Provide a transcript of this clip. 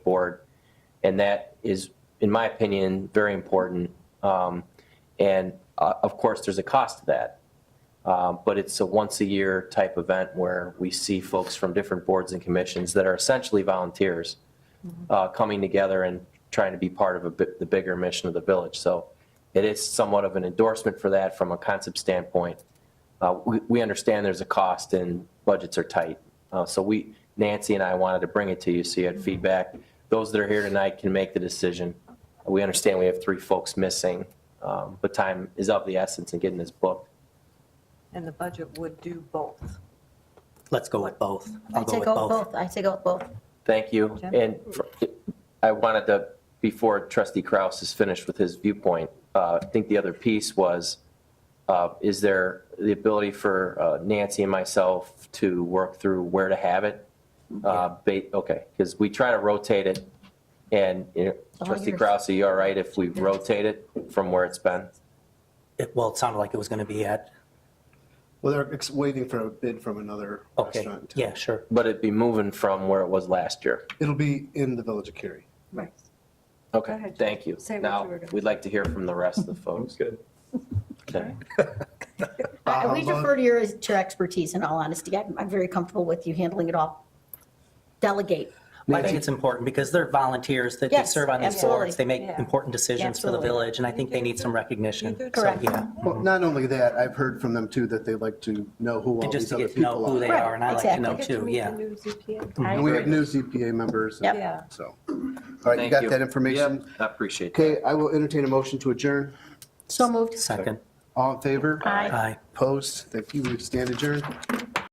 And that is, in my opinion, very important. Um, And uh, of course, there's a cost to that. Um, But it's a once-a-year type event where we see folks from different boards and commissions that are essentially volunteers uh, coming together and trying to be part of a bi- the bigger mission of the village. So it is somewhat of an endorsement for that from a concept standpoint. Uh, We we understand there's a cost and budgets are tight. Uh, So we, Nancy and I wanted to bring it to you so you had feedback. Those that are here tonight can make the decision. We understand we have three folks missing, um, but time is of the essence in getting this booked. And the budget would do both. Let's go with both. I I'll go take with out both. both, I take out both. Thank you. Jim? And for- I wanted to, before trustee Kraus is finished with his viewpoint, uh, I think the other piece was, uh, is there the ability for uh, Nancy and myself to work through where to have it? Uh, ba- Okay, because we try to rotate it, and you Oh, know, all trustee yours. Kraus, are you all right if we rotate it from where it's been? It- Well, it sounded like it was going to be at, Well, they're ex- waiting for a bid from another okay, restaurant. yeah, sure. But it'd be moving from where it was last year. It'll be in the Village of Cary. Right. Go Okay, ahead, thank you. Say what you Now, were gonna- we'd like to hear from the rest of the folks. good. Okay. I- Uh, We but- defer to your, to your expertise, in all honesty. I'm, I'm very comfortable with you handling it all. Delegate. I think it's important because they're volunteers that they Yes, serve on these absolutely. boards. They make Yeah. important decisions for the Absolutely. village and I think they need some recognition. You do. So, Correct. yeah. Well, not only that, I've heard from them too that they like to know who all And just these to other get to know people who they are. are and I like to exactly. know Get to too, meet the yeah. new ZPA. And we have new ZPA members. and Yeah. So, all right, Thank you got that information? Yep, I appreciate that. Okay, I will entertain a motion to adjourn. So moved. Second, All in favor? Aye. aye. Opposed? Thank you. We stand adjourned.